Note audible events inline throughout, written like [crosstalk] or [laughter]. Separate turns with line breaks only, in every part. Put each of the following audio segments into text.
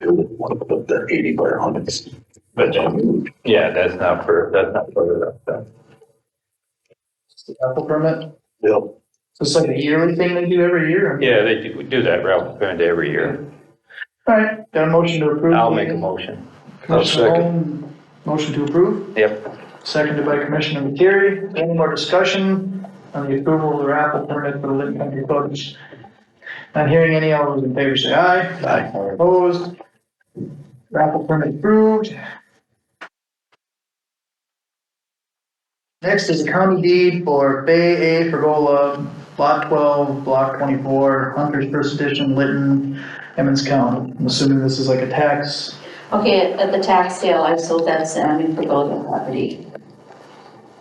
want to put the eighty by a hundred.
But then, yeah, that's not for, that's not for the, the-
Apple permit?
Yep.
So it's like a yearly thing they do every year?
yeah, they do, do that route kind of every year.
All right, got a motion to approve?
I'll make a motion.
Commissioner
I'll second.
Holm, Motion to approve,
Yep.
seconded by Commissioner Materi. Any more discussion on the approval of the Apple permit for the Lincoln Country Clubs? Not hearing any, all those in favor say aye.
Aye.
All Opposed? Raffle permit approved. Next is a county deed for Bay A Pergola, Lot 12, Block 24, Hunter's First Edition, Lytton, Emmons County. I'm assuming this is like a tax.
Okay, at the tax sale, I sold that salmon for golden property.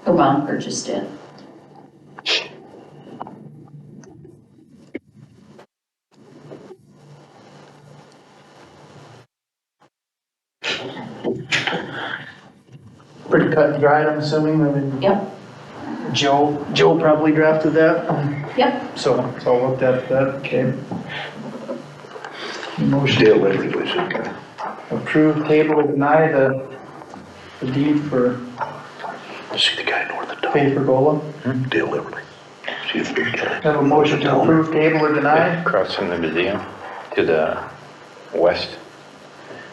Her mom purchased it.
Pretty cut and dried, I'm assuming, I mean.
Yep.
Joe, Joe probably drafted that,
Yep,
so, so I'll look at that, okay. Motion
Dale Everett was in there.
approve, table, deny the the deed for
See the guy north of town,
Bay Pergola.
Dale Everett. See the big guy.
Have a motion to approve, table, or deny?
Across from the museum to the west.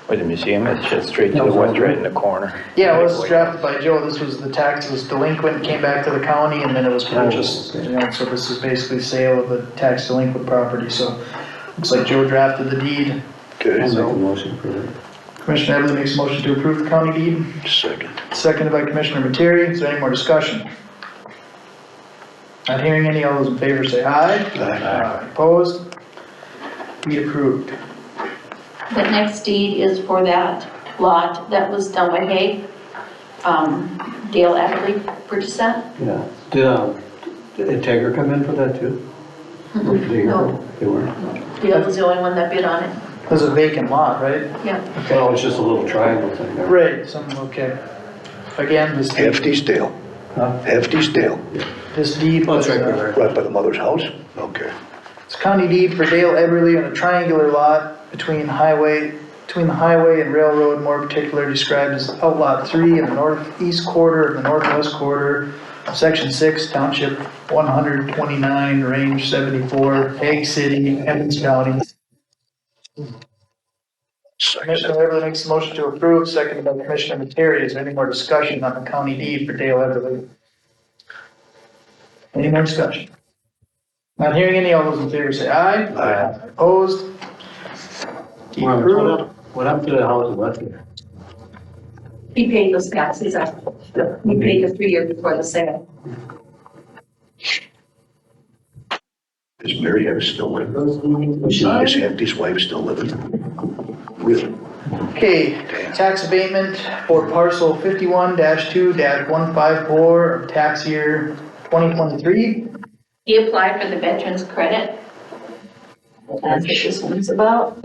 Where the museum is, just straight to the west, right in the corner.
Yeah, it was drafted by Joe, this was the tax was delinquent, came back to the county, and then it was purchased, you know, so this is basically sale of the tax delinquent property, so. Looks like Joe drafted the deed.
Okay,
I'll make a
So
motion for that.
Commissioner Everly makes a motion to approve the county deed,
second.
seconded by Commissioner Materi, is there any more discussion? Not hearing any, all those in favor say aye. Aye. Opposed? Be approved.
the next deed is for that lot that was done by Hay. Um, Dale Everly purchased that.
Yeah. Did, um, did Integra come in for that too? Or did they-
No.
They weren't.
Oh, Dale was the only one that bid on it,
It was a vacant lot, right?
yeah.
Well, it's just a little triangle thing there.
Right, something, okay. Again, this deed,
Hefty's Dale,
Huh?
Hefty's Dale,
this deed
Oh,
was,
it's right
uh,
there.
right by the mother's house? Okay.
it's county deed for Dale Everly on a triangular lot between highway, between the highway and railroad, more particularly described as outlot three in the northeast quarter of the northwest quarter, section six, township one hundred twenty-nine, range seventy-four, Hague City, Evans County. Commissioner
Second.
Everly makes a motion to approve, seconded by Commissioner Materi. Is there any more discussion on the county deed for Dale Everly? Any more discussion? Not hearing any. All those in favor say aye.
Aye.
Opposed? Deed
What
approved.
happened- what happened to the house in Westgate?
He paid those taxes up. He paid the three years before the sale.
Is Mary Ann still living? Is Hefty's wife still living? Really?
Okay, tax abatement for parcel fifty-one two one five four of tax year twenty twenty-three.
He applied for the veterans credit. That's what this one's about.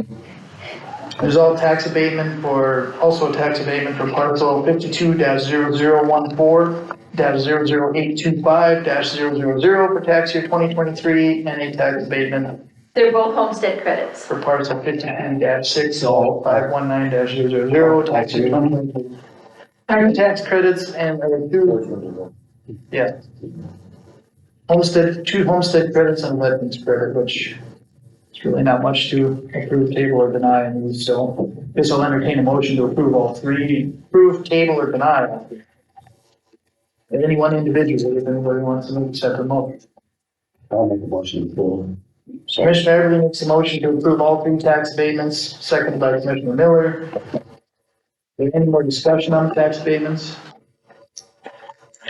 There's all tax abatement for, also a tax abatement for parcel fifty-two 14 zero zero one four dash zero zero eight two five dash zero zero zero for tax year twenty twenty-three, and a tax abatement
They're both homestead credits.
for parcel fifty-two dash six oh five one nine dash zero zero zero, tax year twenty twenty-three. Higher tax credits and, uh, two, yeah. Homestead, two homestead credits and wetlands credit, which it's really not much to approve, table, or deny, and so this will entertain a motion to approve all three, approve, table, or deny. If any one individual, if anybody wants to make separate motion.
I'll make a motion for.
Commissioner Everly makes a motion to approve all three tax abatements, seconded by Commissioner Miller. Is there Any more discussion on the tax abatements?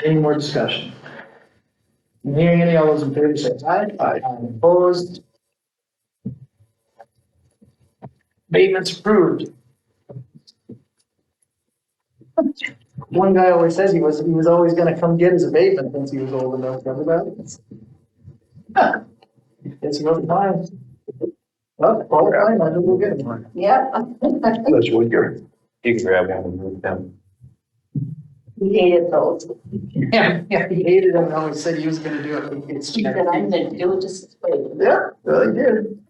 Any more discussion? Not Hearing any, all those in favor say aye.
Aye.
Opposed? Abatements approved. One guy always says he was, he was always gonna come get his abatement once he was old enough, remember that? It's another time. Well, all right, I think we'll get it.
Yep. [laughs]
That's what you're,
You can grab one and move them.
He hated those.
Yeah, yeah, he hated him, and always said he was gonna do it.
He said, I'm
It's-
gonna do it just as well."
Yeah, well, he did.